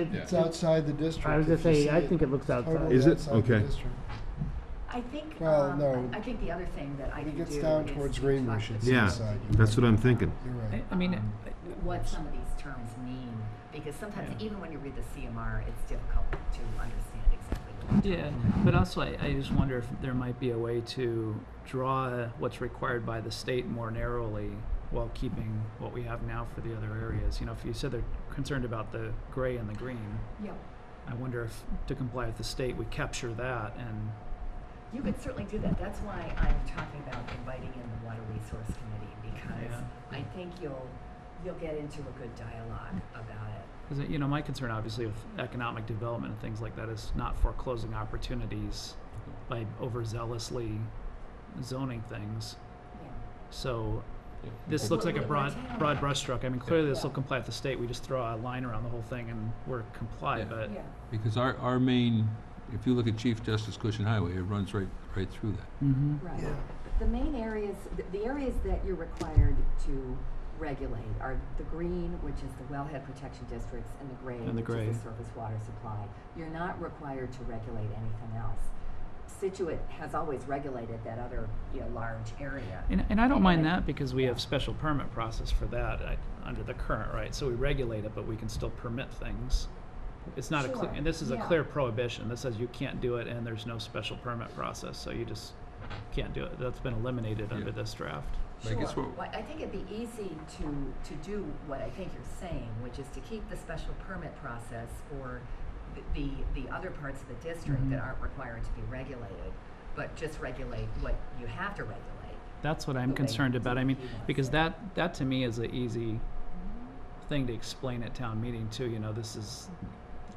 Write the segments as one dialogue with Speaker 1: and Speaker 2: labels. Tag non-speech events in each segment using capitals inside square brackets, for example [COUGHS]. Speaker 1: outside,
Speaker 2: Yeah.
Speaker 1: it's outside the district.
Speaker 3: I was gonna
Speaker 1: If you
Speaker 3: say,
Speaker 1: see
Speaker 3: I
Speaker 1: it,
Speaker 3: think it looks outside.
Speaker 1: totally
Speaker 4: Is it?
Speaker 1: outside the
Speaker 4: Okay.
Speaker 1: district.
Speaker 5: I think,
Speaker 1: Well,
Speaker 5: um,
Speaker 1: no.
Speaker 5: I I think the other thing that I
Speaker 1: When
Speaker 5: can
Speaker 1: it
Speaker 5: do
Speaker 1: gets down
Speaker 5: is
Speaker 1: towards
Speaker 5: talk
Speaker 1: Greenbush,
Speaker 5: to
Speaker 1: it's
Speaker 4: Yeah,
Speaker 1: inside. You're
Speaker 4: that's
Speaker 1: right.
Speaker 4: what Mm. I'm thinking.
Speaker 1: You're
Speaker 2: I,
Speaker 1: right.
Speaker 2: I mean,
Speaker 5: um,
Speaker 2: I-
Speaker 5: what some of these terms mean, because sometimes,
Speaker 2: Yeah.
Speaker 5: even when you read the CMR, it's difficult to understand exactly what. they're
Speaker 2: yeah,
Speaker 5: talking
Speaker 2: but also I, I just wonder if there might be a way to draw what's required by the state more narrowly while keeping what we have now for the other areas. You know, if you said they're concerned about the gray and the green,
Speaker 5: about. Yeah.
Speaker 2: I wonder if to comply with the state, we capture that and
Speaker 5: You could certainly do that. That's why I'm talking about inviting in the Water Resource Committee because
Speaker 2: Yeah.
Speaker 5: I think you'll, you'll get into a good dialogue about it.
Speaker 2: Because, you know, my concern obviously with economic development and things like that is not foreclosing opportunities by overzealously zoning things.
Speaker 5: Yeah.
Speaker 2: So
Speaker 6: Yeah.
Speaker 2: this looks like a
Speaker 5: Well,
Speaker 2: broad,
Speaker 5: we're town.
Speaker 2: broad brushstroke. I mean, clearly this will
Speaker 5: Yeah.
Speaker 2: comply with the state. We just throw a line around the whole thing and we're comply,
Speaker 6: Yeah.
Speaker 2: but,
Speaker 5: Yeah.
Speaker 6: Because our, our main, if you look at Chief Justice Cushion Highway, it runs right, right through that.
Speaker 2: Mhm.
Speaker 5: Right.
Speaker 1: Yeah.
Speaker 5: The main areas, th- the areas that you're required to regulate are the green, which is the wellhead protection districts, and the gray,
Speaker 2: And the
Speaker 5: which is the
Speaker 2: gray.
Speaker 5: surface water supply. You're not required to regulate anything else. Situate has always regulated that other, you know, large area.
Speaker 2: And, and I don't mind
Speaker 5: Anyway.
Speaker 2: that because we have special permit process for that I, under the current, right? So we regulate it, but we can still permit things. It's not a, cle-
Speaker 5: Sure,
Speaker 2: and this is a
Speaker 5: yeah.
Speaker 2: clear prohibition. This says you can't do it and there's no special permit process, so you just can't do it. That's been eliminated under
Speaker 6: Yeah.
Speaker 2: this draft.
Speaker 6: But I guess
Speaker 5: Sure.
Speaker 6: what-
Speaker 5: Well, I think it'd be easy to, to do what I think you're saying, which is to keep the special permit process for th- the, the other parts of the district that
Speaker 2: Mhm.
Speaker 5: aren't required to be regulated, but just regulate what you have to regulate.
Speaker 2: That's what I'm
Speaker 5: Okay.
Speaker 2: concerned about. I mean,
Speaker 5: Yeah.
Speaker 2: because that, that to me is an easy thing to explain at town meeting too, you know, this is,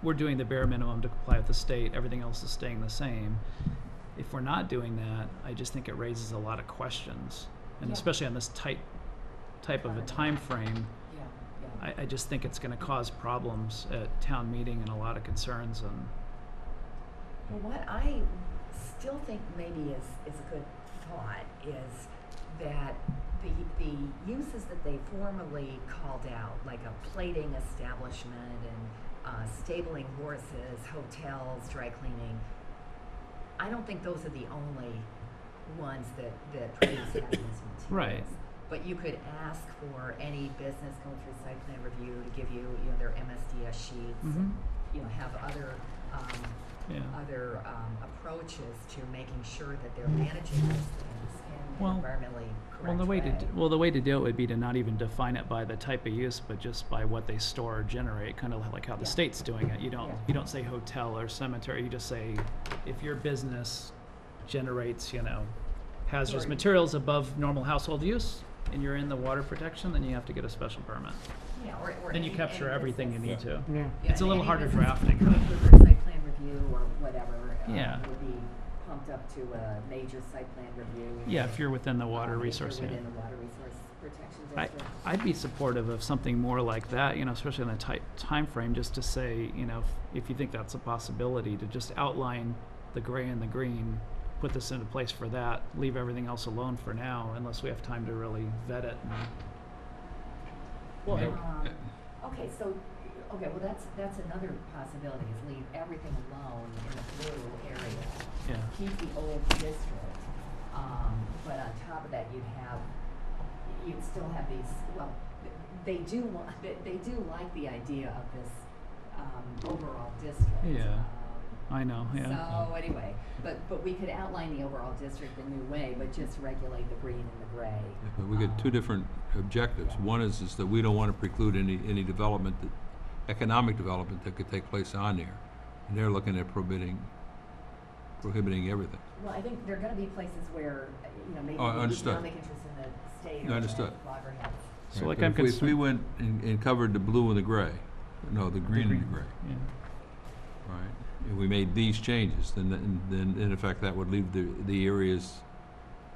Speaker 2: we're doing the bare minimum to comply with the state, everything else is staying the same. If we're not doing that, I just think it raises a lot of questions, and
Speaker 5: Yeah.
Speaker 2: especially on this tight, type of a time frame,
Speaker 5: Yeah,
Speaker 2: I, I just think it's gonna cause problems at town meeting and a lot of concerns and,
Speaker 5: Well, what I still think maybe is, is a good thought is that the, the uses that they formally called out, like a plating establishment and uh, stabling horses, hotels, dry cleaning, I don't think those are the only ones that, that [COUGHS] produce hazardous materials.
Speaker 2: Right.
Speaker 5: But you could ask for any business going through site plan review to give you, you know, their MSDS sheets,
Speaker 2: Mm-hmm.
Speaker 5: and, you know, have other, um,
Speaker 2: yeah.
Speaker 5: other um, approaches to making sure that they're managing those things in
Speaker 2: Well-
Speaker 5: an environmentally correct
Speaker 2: Well, the way to, d- well, the way to do it would be to not even define it by the type of use, but just by what they store or generate, kind of like how the
Speaker 5: Yeah.
Speaker 2: state's doing it. You don't,
Speaker 5: Yeah.
Speaker 2: you don't say hotel or cemetery, you just say, if your business generates, you know, hazardous
Speaker 5: Right.
Speaker 2: materials above normal household use, and you're in the water protection, then you have to get a special permit.
Speaker 5: yeah, or, or
Speaker 2: Then you
Speaker 5: any-
Speaker 2: capture
Speaker 5: any
Speaker 2: everything you
Speaker 5: business-
Speaker 2: need to.
Speaker 3: Yeah.
Speaker 5: yeah,
Speaker 2: It's a little
Speaker 5: any
Speaker 2: harder
Speaker 5: business
Speaker 2: drafting,
Speaker 5: [LAUGHS] going
Speaker 2: but-
Speaker 5: through site plan review or whatever um,
Speaker 2: Yeah.
Speaker 5: would be pumped up to a major site plan review.
Speaker 2: Yeah, if you're within the water
Speaker 5: um, if
Speaker 2: resource,
Speaker 5: you're
Speaker 2: yeah.
Speaker 5: within the water resource protection
Speaker 2: I,
Speaker 5: district.
Speaker 2: I'd be supportive of something more like that, you know, especially in a tight time frame, just to say, you know, if, if you think that's a possibility, to just outline the gray and the green, put this into place for that, leave everything else alone for now, unless we have time to really vet it. and-
Speaker 6: Well,
Speaker 2: Make-
Speaker 5: Um, Okay, so, okay, well, that's, that's another possibility, is leave everything alone in the blue area.
Speaker 2: yeah.
Speaker 5: keep the old district, um, but on top of that, you'd have, you'd still have these, well, th- they do want, they, they do like the idea of this, um, overall district.
Speaker 2: Yeah.
Speaker 5: um,
Speaker 2: I know, yeah.
Speaker 5: So, anyway, but, but we could outline the overall district a new way, but just regulate the green and the gray.
Speaker 6: Yeah, But we got two
Speaker 5: um,
Speaker 6: different objectives. One is, is that we don't want to preclude any, any development, that economic development that could take place on there. And they're looking at prohibiting, prohibiting everything.
Speaker 5: Well, I think there are gonna be places where, uh, you know, maybe
Speaker 6: Oh, I
Speaker 5: the
Speaker 6: understood.
Speaker 5: economic interest in the state
Speaker 6: I
Speaker 5: are
Speaker 6: understood.
Speaker 5: at loggerheads.
Speaker 2: So
Speaker 6: Right,
Speaker 2: like
Speaker 6: but
Speaker 2: I'm
Speaker 6: if we- If we
Speaker 2: concerned-
Speaker 6: went and, and covered the blue and the gray, no, the green and the gray,
Speaker 2: Yeah.
Speaker 6: right? If we made these changes, then, then, then in effect, that would leave the, the areas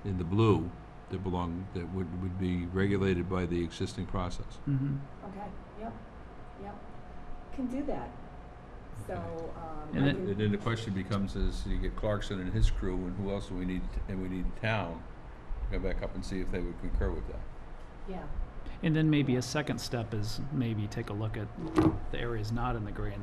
Speaker 6: in the blue that belong, that would, would be regulated by the existing process.
Speaker 2: Mm-hmm.
Speaker 5: Okay, yep, yep. Can do that. So, um.
Speaker 2: And
Speaker 5: I
Speaker 2: it-
Speaker 5: can-
Speaker 6: And then the question becomes is, you get Clarkson and his crew, and who else do we need, and we need town, go back up and see if they would concur with that.
Speaker 5: Yeah.
Speaker 2: And then maybe a second step is maybe take a look at the areas not in the gray and